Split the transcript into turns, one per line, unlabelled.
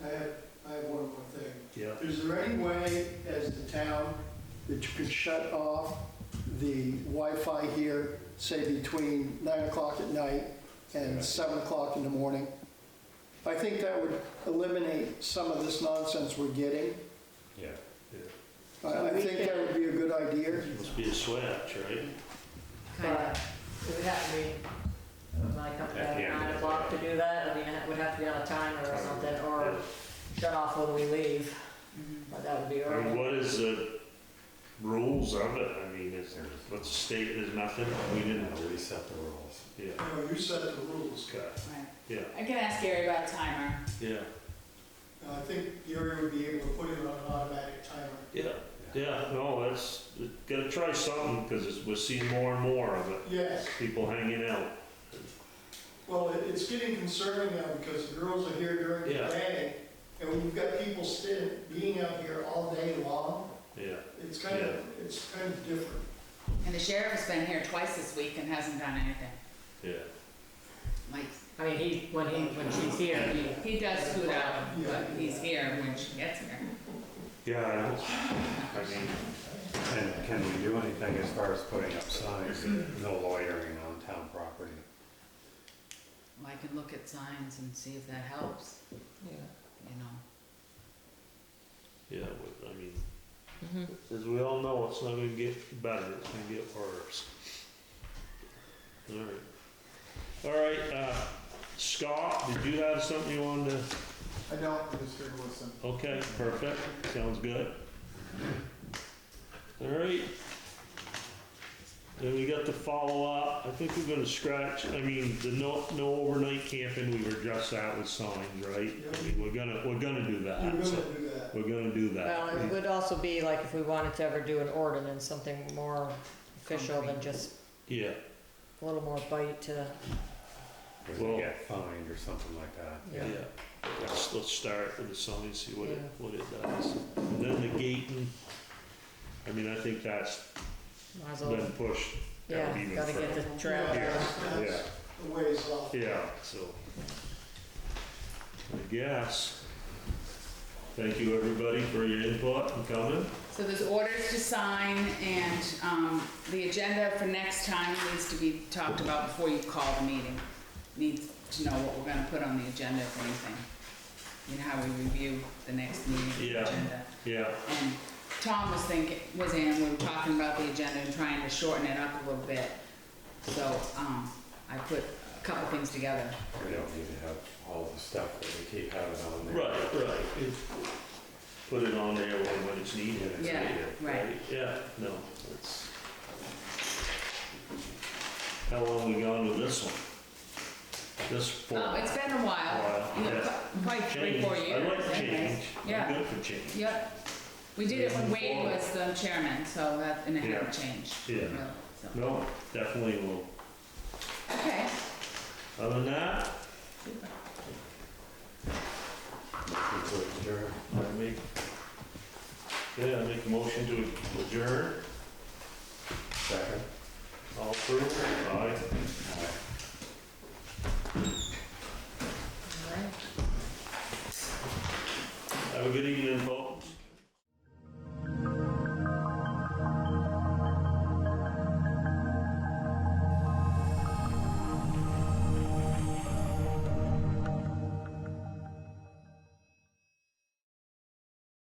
is there any way as the town that you could shut off the Wi-Fi here, say between nine o'clock at night and seven o'clock in the morning? I think that would eliminate some of this nonsense we're getting.
Yeah,
I I think that would be a good idea.
must be a switch, right?
kind of, it would have to be, my company,
At the
at
end of
nine
the
o'clock
day.
to do that, I mean, it would have to be on a timer or something, or shut off when we leave, but that would be
I mean,
early.
what is the rules of it? I mean, is, what's the state, there's nothing, we didn't,
We set the rules.
yeah,
No, you set the rules.
okay,
Right.
yeah,
I can ask Gary about a timer.
yeah,
I think Gary would be able to put it on an automatic timer.
yeah, yeah, no, that's, gotta try something, because it's, we're seeing more and more of it,
Yes,
people hanging out.
well, it- it's getting concerning now because the girls are here during the
Yeah.
day, and when you've got people sitting, being out here all day long,
Yeah,
it's kind of, it's kind of different.
And the sheriff has been here twice this week and hasn't done anything.
yeah,
Like,
I mean, he, when he, when she's here, he,
he does scoot out, but he's here when she gets here.
yeah, I don't, I mean,
And can we do anything as far as putting up signs, no loitering on town property?
Well, I can look at signs and see if that helps, you know.
yeah, we- I mean, as we all know, it's not gonna get better, it's gonna get worse. Alright, alright, uh, Scott, did you have something you wanted to?
I don't, I'm just here to listen.
Okay, perfect, sounds good. All right. Then we got the follow-up, I think we're gonna scratch, I mean, the no, no overnight camping, we were just out with signs, right? I mean, we're gonna, we're gonna do
You're
that, so,
gonna do that.
we're gonna do
well, it
that.
would also be like if we wanted to ever do an ordinance, something more official than just
Yeah,
a little more bite to,
Or
Well-
we get fined or something like that?
yeah,
Yeah.
let's, let's start with the sign, see what it,
Yeah.
what it does. And then the gating, I mean, I think that's
might as well,
been pushed
yeah,
out even
gotta get
further.
the trail.
Yeah,
down.
that's-
Yeah.
that's a ways off.
Yeah, so. I guess. Thank you, everybody, for your input and comment.
So there's orders to sign and, um, the agenda for next time needs to be talked about before you call the meeting. Needs to know what we're gonna put on the agenda if anything. You know how we review the next meeting
Yeah.
agenda.
Yeah,
And Um, Tom was thinking, was in, we were talking about the agenda and trying to shorten it up a little bit. So, um, I put a couple things together.
We don't need to have all the stuff that we keep having on there.
right, right. It- Put it on there when when it's needed. it's
Yeah,
needed,
right.
Yeah, no, it's. How long we gone with this one? This four?
Oh, it's been a while.
While,
You know,
yeah.
pro- Probably three,
Change.
four
I
years.
like
anyways.
change. I'm
Yeah,
good for change.
yep. We did it when Wade was the chairman, so that, and it hadn't changed.
Yeah.
really, so.
No, definitely will.
Okay.
Other than that,
People adjourn.
I make, yeah, I make a motion to adjourn,
Second.
all through, aye.
All right.
Have a good evening, folks.